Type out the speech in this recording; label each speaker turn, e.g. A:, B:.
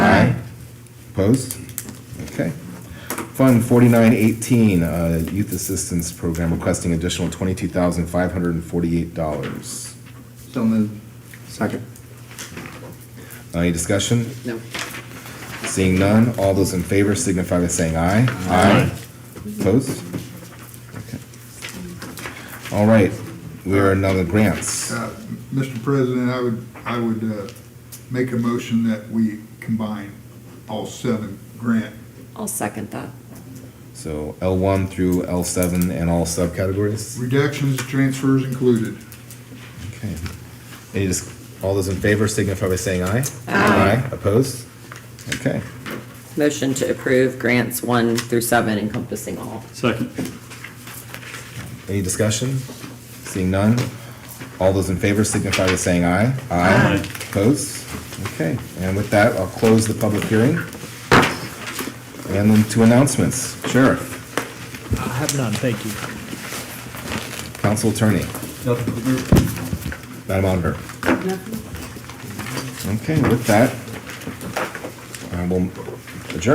A: Opposed? Okay. Fund forty-nine eighteen, uh, Youth Assistance Program requesting additional twenty-two thousand five hundred and forty-eight dollars.
B: So moved. Second.
A: Uh, Any discussion?
B: No.
A: Seeing none, all those in favor signify by saying aye. Aye. Opposed? Okay. All right, we are now the grants.
C: Uh, Mr. President, I would, I would uh, make a motion that we combine all seven grant.
D: I'll second that.
A: So L one through L seven and all subcategories?
C: Reductions, transfers included.
A: Okay. Any just, all those in favor signify by saying aye.
D: Aye.
A: Opposed? Okay.
D: Motion to approve grants one through seven encompassing all.
E: Second.
A: Any discussion? Seeing none, all those in favor signify by saying aye.
E: Aye.
A: Opposed? Okay, and with that, I'll close the public hearing. And then to announcements. Sheriff,
F: I have none, thank you.
A: council attorney, Madam Auditor. Okay, with that, I will